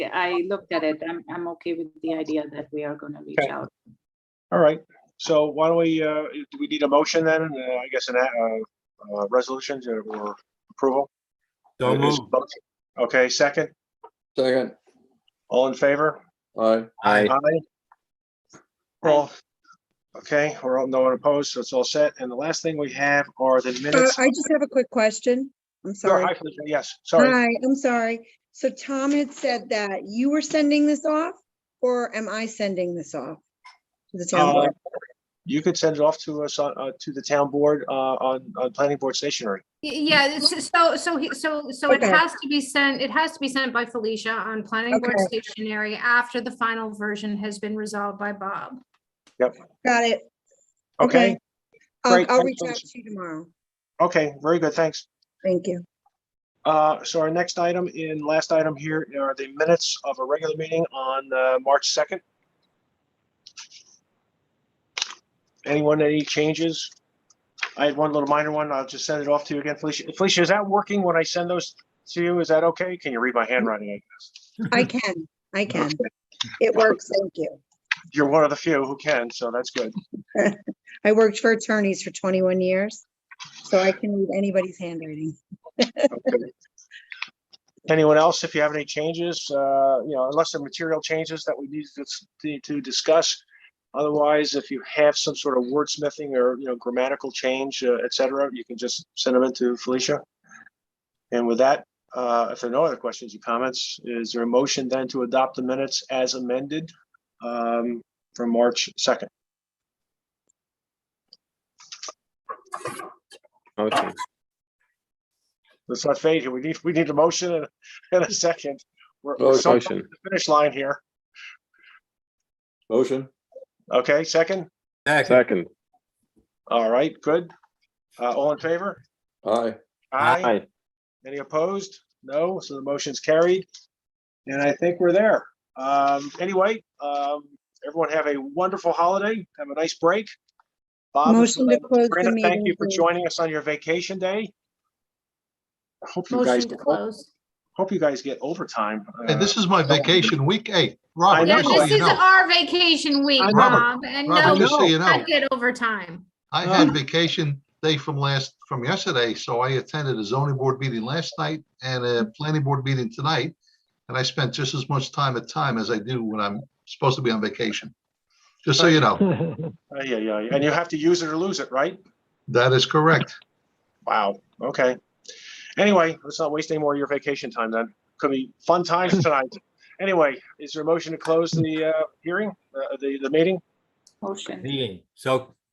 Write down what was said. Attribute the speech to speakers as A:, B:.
A: I looked at it. I'm, I'm okay with the idea that we are gonna reach
B: Okay.
A: out.
B: All right, so why don't we, uh, do we need a motion then, Uh, I guess, an, uh, uh, resolutions or approval?
C: So
B: Is-
C: moved.
B: Okay, second,
D: Second,
B: all in favor?
D: aye,
C: Aye.
B: Aye. All, okay, we're all, no one opposed, so it's all set. And the last thing we have are the
E: Uh,
B: minutes.
E: I just have a quick question. I'm
B: Sure,
E: sorry. Uh,
B: hi, Felicia, Yes, sorry.
E: Hi, I'm sorry. So Tom had said that you were sending this off, or am I sending this off? To the town
B: Uh,
E: board?
B: You could send it off to us, on- uh, to the town board, uh, on, on planning board stationery.
F: Y- Yeah, it's- so, so, he- so, so it
E: Okay.
F: has to be sent, it has to be sent by Felicia on planning board
E: Okay.
F: stationery after the final version has been resolved by Bob.
E: Got it.
B: Okay,
E: I'll,
B: great,
E: I'll
B: thanks,
E: reach out
B: Alicia.
E: to you tomorrow.
B: okay, very good, thanks.
E: Thank you.
B: Uh, so our next item in, last item here are the minutes of a regular meeting on, uh, March 2nd. Anyone, any changes? I had one little minor one. I'll just send it off to you again, Felicia. Felicia, is that working when I send those to you? Is that okay? Can you read my handwriting?
E: I can, I can. It works, thank you.
B: You're one of the few who can, so that's good.
E: I worked for attorneys for 21 years, so I can read anybody's handwriting.
B: Okay. Anyone else, if you have any changes, uh, you know, unless there are material changes that we need to, dis- need to discuss. Otherwise, if you have some sort of wordsmithing or, you know, grammatical change, uh, et cetera, you can just send them in to Felicia. And with that, uh, if there are no other questions or comments, is there a motion then to adopt the minutes as amended, um, from March second?
C: Motion.
B: Let's not fade here. We need, we need a motion and- and a second. We're, we're so close to
D: motion,
B: the finish line here.
D: motion,
B: Okay, second?
C: Second.
D: second,
B: All right, good. Uh, all in favor?
D: aye,
B: Aye. Any opposed? No, so the motion's carried. And I think we're there. Um, anyway, um, everyone have a wonderful holiday. Have a nice break. Bob, it's
E: Motion to
B: been-
E: close the
B: Brandon,
E: meeting.
B: thank you for
E: please.
B: joining us on your vacation day. I Hope you guys,
F: Motion to close.
B: hope you guys get overtime.
G: And
B: uh,
G: this is my vacation week eight. Robert,
F: Yeah,
G: just so
F: this
G: you
F: is
G: know,
F: our vacation week,
B: I know.
F: Bob, and no,
G: Robert,
F: we
G: just so you know,
F: can't get overtime.
G: I had vacation day from last, from yesterday, so I attended a zoning board meeting last night and a planning board meeting tonight. And I spent just as much time at time as I do when I'm supposed to be on vacation. Just so you know,
B: uh, Yeah, yeah, and you have to use it or lose it, right?
G: that is correct.
B: Wow, okay. Anyway, let's not waste any more of your vacation time then. Could be fun times tonight. Anyway, is there a motion to close the uh, hearing, uh, the, the meeting?
A: Motion.
C: Meeting. So